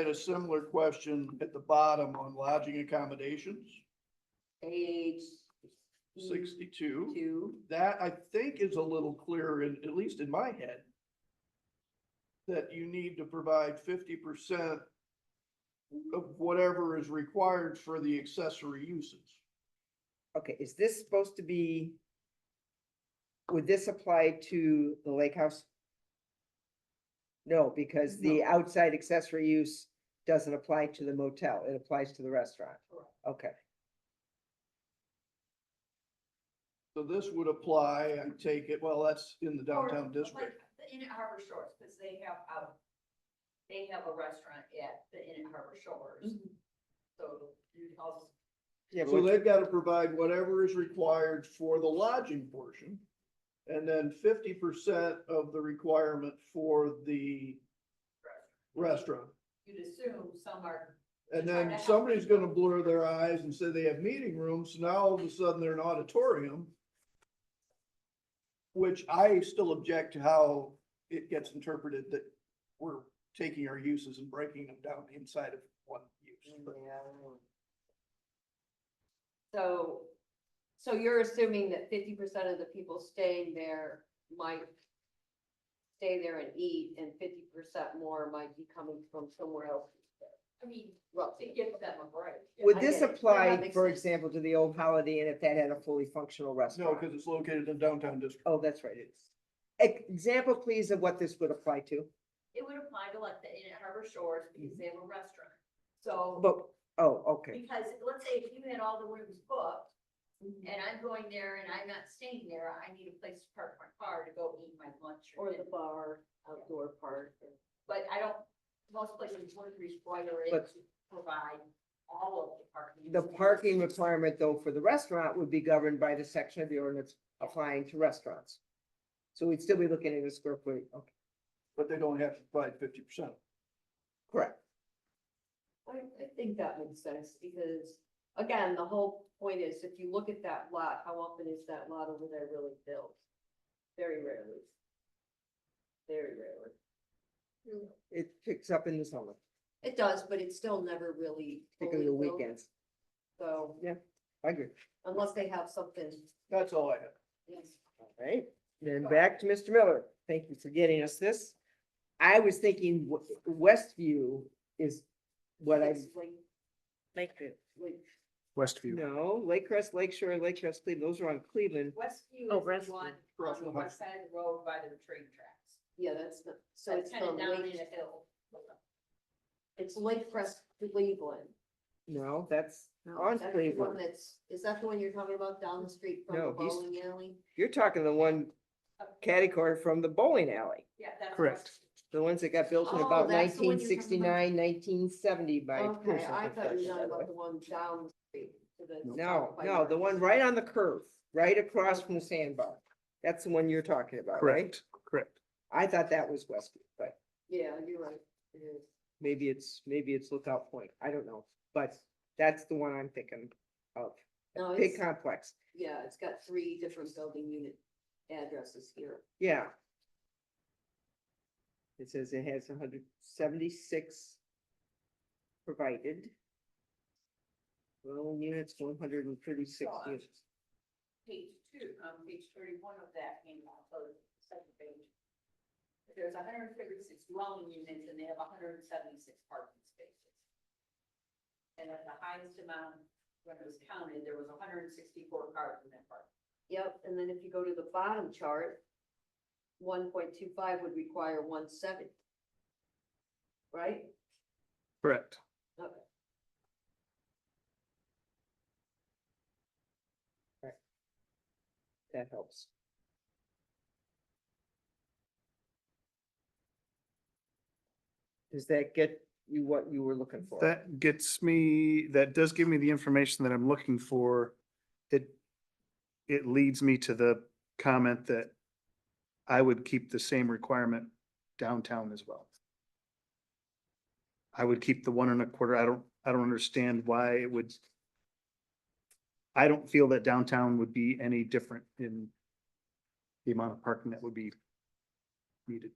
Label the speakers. Speaker 1: had a similar question at the bottom on lodging accommodations,
Speaker 2: Page.
Speaker 3: Mm-hmm.
Speaker 1: sixty-two.
Speaker 2: Two.
Speaker 1: That I think is a little clearer, in- at least in my head. That you need to provide fifty percent of whatever is required for the accessory uses.
Speaker 4: Okay, is this supposed to be? Would this apply to the lake house? No, because the outside accessory use doesn't apply to the motel. It applies to the restaurant. Okay,
Speaker 1: So this would apply, I take it, well, that's in the
Speaker 2: Or,
Speaker 1: downtown district.
Speaker 2: like, The Inn at Harbor Shores, because they have, um, they have a restaurant at the Inn at Harbor Shores. So you'd also,
Speaker 4: yeah,
Speaker 1: So
Speaker 4: but
Speaker 1: they've got to provide whatever is required for the lodging portion. And then fifty percent of the requirement for the restaurant.
Speaker 2: you'd assume some are,
Speaker 1: And then somebody's gonna blur their eyes and say they have meeting rooms, so now all of a sudden they're an auditorium. Which I still object to how it gets interpreted that we're taking our uses and breaking them down inside of one use. But
Speaker 4: Mm,
Speaker 3: So, so you're assuming that fifty percent of the people staying there might stay there and eat, and fifty percent more might be coming from somewhere else.
Speaker 2: I mean, to
Speaker 3: Roughly.
Speaker 2: give them a break.
Speaker 4: would
Speaker 3: I
Speaker 4: this
Speaker 3: get it. No, that
Speaker 4: apply,
Speaker 3: makes
Speaker 4: for
Speaker 3: sense.
Speaker 4: example, to the old Holiday Inn if that had a fully functional
Speaker 1: No,
Speaker 4: restaurant?
Speaker 1: because it's located in downtown district.
Speaker 4: Oh, that's right, it is. E- Example, please, of what this would apply to,
Speaker 2: It would apply to like the Inn at Harbor Shores because they have a restaurant. So,
Speaker 4: but, oh, okay,
Speaker 2: because let's say if you had all the rooms booked
Speaker 3: Mm-hmm.
Speaker 2: and I'm going there and I'm not staying there, I need a place to park my car to go eat my lunch or
Speaker 3: Or the
Speaker 2: dinner.
Speaker 3: bar, outdoor park.
Speaker 2: But I don't, most places would require it
Speaker 4: But-
Speaker 2: to provide all of the parking.
Speaker 4: the parking requirement though for the restaurant would be governed by the section of the ordinance applying to restaurants. So we'd still be looking at a square foot, okay,
Speaker 1: but they don't have to provide fifty percent.
Speaker 4: correct,
Speaker 3: I, I think that makes sense, because, again, the whole point is, if you look at that lot, how often is that lot over there really built? Very rarely. Very rarely.
Speaker 4: it picks up in the summer,
Speaker 3: It does, but it's still never really.
Speaker 4: particularly the
Speaker 3: fully built,
Speaker 4: weekends,
Speaker 3: So
Speaker 4: I agree.
Speaker 3: unless they have something,
Speaker 1: That's all I have.
Speaker 3: yes.
Speaker 4: All right, then back to Mr. Miller. Thank you for getting us this. I was thinking W- Westview is what I,
Speaker 3: Like-
Speaker 5: Lakeview.
Speaker 3: like-
Speaker 6: Westview.
Speaker 4: no, Lake Crest, Lake Shore, Lake Crest, Cleveland, those are on Cleveland.
Speaker 2: Westview
Speaker 5: Oh,
Speaker 2: is the
Speaker 5: Westview.
Speaker 2: one
Speaker 1: Across
Speaker 2: on the
Speaker 1: from Hudson.
Speaker 2: west side of the road by the train tracks.
Speaker 3: yeah, that's, the- so it's
Speaker 2: That's kind of
Speaker 3: from
Speaker 2: down in
Speaker 3: Lake,
Speaker 2: a hill.
Speaker 3: it's Lake Crest Cleveland.
Speaker 4: No, that's on
Speaker 3: That's the one
Speaker 4: Oh, Cleveland.
Speaker 3: that's, is that the one you're talking about down the street from
Speaker 4: No,
Speaker 3: the
Speaker 4: he's-
Speaker 3: bowling alley?
Speaker 4: You're talking the one catty corner from the bowling alley,
Speaker 2: Yeah, that's.
Speaker 6: Correct.
Speaker 2: Westview.
Speaker 4: the ones that got built in
Speaker 3: Oh,
Speaker 4: about
Speaker 3: that's the one you're talking
Speaker 4: nineteen
Speaker 3: about.
Speaker 4: sixty-nine, nineteen seventy by.
Speaker 3: Okay,
Speaker 4: Pearson
Speaker 3: I thought you
Speaker 4: Construction,
Speaker 3: were talking
Speaker 4: by the way.
Speaker 3: about the one down the street. to the-
Speaker 4: No,
Speaker 3: by
Speaker 4: no,
Speaker 3: yours.
Speaker 4: the one right on the curve, right across from the sandbar. That's the one you're talking about, right?
Speaker 6: Correct, correct.
Speaker 4: I thought that was Westview, but.
Speaker 3: Yeah, you're right, it is.
Speaker 4: maybe it's, maybe it's Lookout Point, I don't know, but that's the one I'm thinking of.
Speaker 3: No,
Speaker 4: Big
Speaker 3: it's-
Speaker 4: complex,
Speaker 3: Yeah, it's got three different building unit addresses here.
Speaker 4: yeah. It says it has hundred seventy-six provided. Dwelling units, one hundred and thirty-six
Speaker 2: Sure.
Speaker 4: units.
Speaker 2: page two, on page thirty-one of that handout, so the second page. There's hundred and thirty-six dwelling units and they have hundred and seventy-six parking spaces. And at the highest amount, when it was counted, there was hundred and sixty-four cars in that park.
Speaker 3: Yep, and then if you go to the bottom chart, one point two five would require one seventy. Right?
Speaker 6: Correct.
Speaker 3: Okay.
Speaker 4: That helps. Does that get you what you were looking for?
Speaker 6: That gets me, that does give me the information that I'm looking for. It, it leads me to the comment that I would keep the same requirement downtown as well. I would keep the one and a quarter. I don't, I don't understand why it would. I don't feel that downtown would be any different in the amount of parking that would be needed.